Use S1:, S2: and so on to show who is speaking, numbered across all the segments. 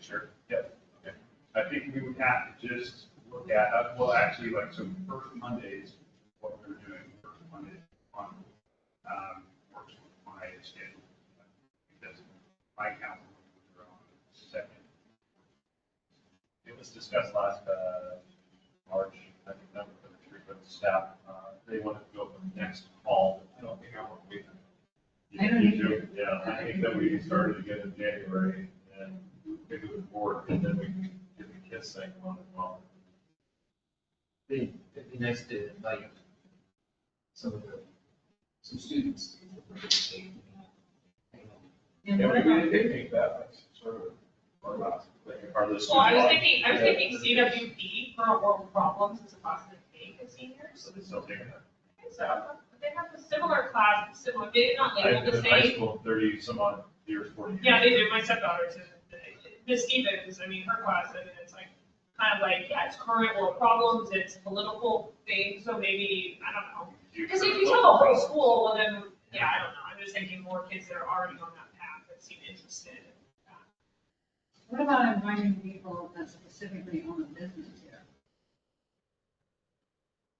S1: Sure.
S2: Yep. I think we would have to just look at, uh, well, actually, like, so first Mondays, what we're doing first Monday on, um, works with my schedule. Because my council meetings are on the second.
S1: It was discussed last, uh, March, I think that was the retreat with the staff, uh, they wanted to go for the next fall. I don't think I want to wait.
S3: I don't
S1: You
S3: either.
S1: do? Yeah, I think that we started again in January and maybe with the board, and then we can get the kids thing on as well.
S4: Be, it'd be nice to invite some of the, some students. to participate.
S3: And
S5: Yeah,
S3: what
S5: we did
S3: about-
S5: picnic that, like, sort of, or last, like,
S1: Are those?
S6: Well, I was thinking, I was thinking CWP for world problems is a possibility for seniors.
S1: So they still take that.
S6: I think So, but they have a similar class, similar, they did not
S1: I've
S6: label
S1: been
S6: the
S1: in high
S6: same.
S1: school thirty some odd years, forty years.
S6: Yeah, they do, my stepdaughter's in, it. Miss Stevens, I mean, her class, I mean, it's like, kind of like, yeah, it's current world problems, it's political things, so maybe, I don't know. Because if you tell the whole school, well then, yeah, I don't know, I'm just thinking more kids that are already on that path that seem interested.
S3: What about inviting people that specifically own a business here?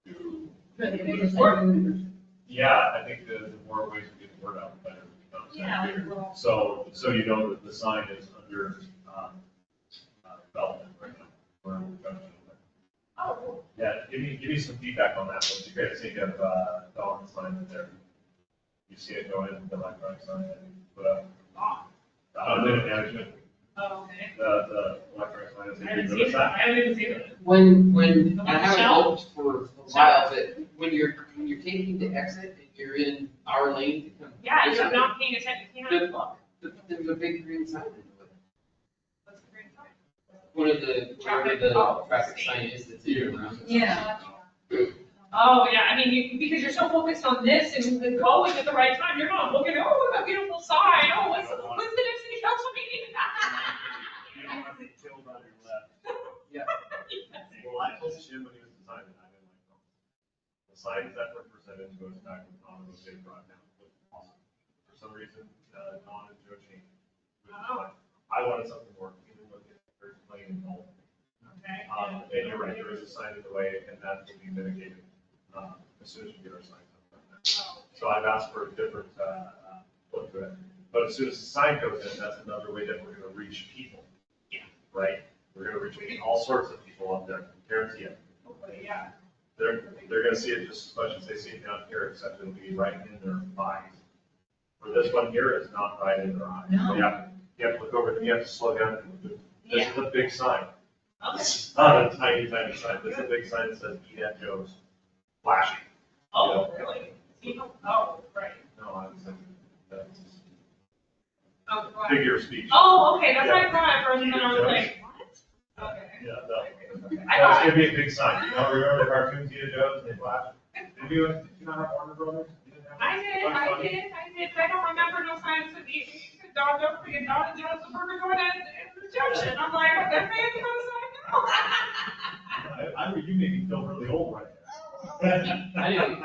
S3: For the business owners.
S1: Yeah, I think the, the more ways we get the word out, the better. it becomes.
S3: well,
S1: So, so you know that the sign is under, um, uh, development right now. We're in production.
S6: Oh.
S1: Yeah, give me, give me some feedback on that, what you guys think of, uh, the on sign in there? You see it going in, the electronic sign, that you put up,
S6: Oh,
S1: the outdoor management,
S6: okay.
S1: the, the electronic sign, is
S6: I haven't
S1: it
S6: seen
S1: good
S6: it,
S1: with
S6: I
S1: that?
S6: haven't even seen it.
S4: When, when,
S6: The one
S4: I haven't
S6: shell?
S4: helped for a while, but when you're, when you're taking the exit and you're in our lane to come.
S6: Yeah,
S4: this
S6: you're
S4: way,
S6: not paying attention, you can't.
S4: the- the- There's a big green sign in the way.
S6: What's the green sign?
S4: One of the, whatever
S6: Traffic.
S4: the
S6: Oh.
S4: traffic sign is that's in the round.
S3: Yeah.
S6: Oh, yeah, I mean, you, because you're so focused on this and the going at the right time, you're not looking, oh, what a beautiful sign, oh, what's, when's the next city council meeting?
S1: You don't have to tilt on your left.
S4: Yeah.
S1: Well, I told Jim when he was designing, I didn't like them. The signs that were presented to us back in Don was they brought down, was awesome. For some reason, uh, Don and Joe changed. it.
S6: Oh.
S1: I wanted something more, even with the very plain and bold. Um, and you're right, there is a sign in the way, and that will be mitigated, um, as soon as we get our signs up. So I've asked for a different, uh, uh, look to it. But as soon as the sign goes in, that's another way that we're gonna reach people.
S6: Yeah.
S1: Right? We're gonna reach all sorts of people up there, guarantee it.
S6: Okay, yeah.
S1: They're, they're gonna see it just as much as they see it down here, except it'll be right in their eyes. Where this one here is not right in their eyes.
S6: Oh.
S3: No.
S1: You have, you have to look over, you have to slow down. This
S6: Yeah,
S1: is a big sign.
S6: okay.
S1: This is not a tiny, tiny sign. This is a big sign that says, eat at Joe's. Flashing.
S6: Oh, really? See, Oh, right.
S1: No, I was thinking, that's
S6: Oh, right.
S1: figure of speech.
S6: Oh, okay, that's what I thought at first, and then I was like, what? Okay.
S1: Yeah, no.
S6: I
S1: That's
S6: thought,
S1: gonna be a big sign, you know, remember the cartoons, Tita Joe's, and they flash? Did you, did you not have Warner Brothers? You didn't have-
S6: I did, I did, I did, I don't remember no signs of the, dog, don't forget, dog, and John's burger going at at the junction, I'm like, what the heck is going
S1: I,
S6: on?
S1: I, you made me feel really old right there.
S4: I didn't,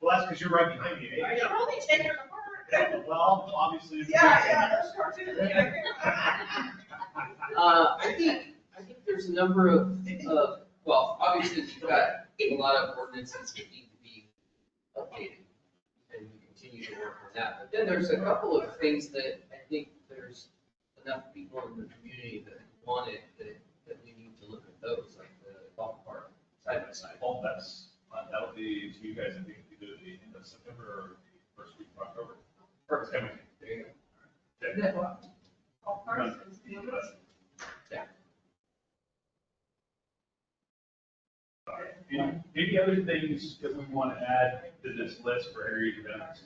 S1: Well, that's because you're right behind me, eh?
S6: You're only ten years apart.
S1: Well, obviously. it's-
S6: those cartoons, yeah.
S4: Uh, I think, I think there's a number of, of, well, obviously, we've got a lot of ordinances that need to be updated. And we continue to work on that, but then there's a couple of things that I think there's enough people in the community that want it, that, that we need to look at those, like the golf park, side by side.
S1: Well, that's, uh, that'll be to you guys, I think, either the end of September or the first week of October.
S4: Perfect, there you go.
S1: Okay.
S3: That one.
S6: All persons, you know,
S2: Any, any other things that we want to add to this list for area events?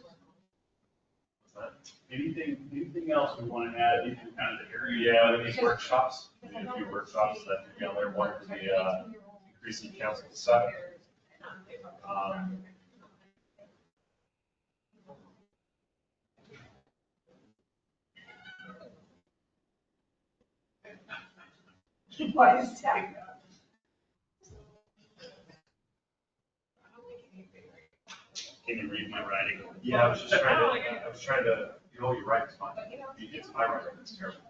S2: Anything, anything else we want to add, anything kind of the area?
S1: Yeah, we need workshops, we need a few workshops that, you know, they're one for the, uh, increasing council size. Um,
S6: Why is that?
S2: Can you read my writing?
S1: Yeah, I was just trying to, I was trying to, you know, your writing's fine, it's my writing, it's terrible.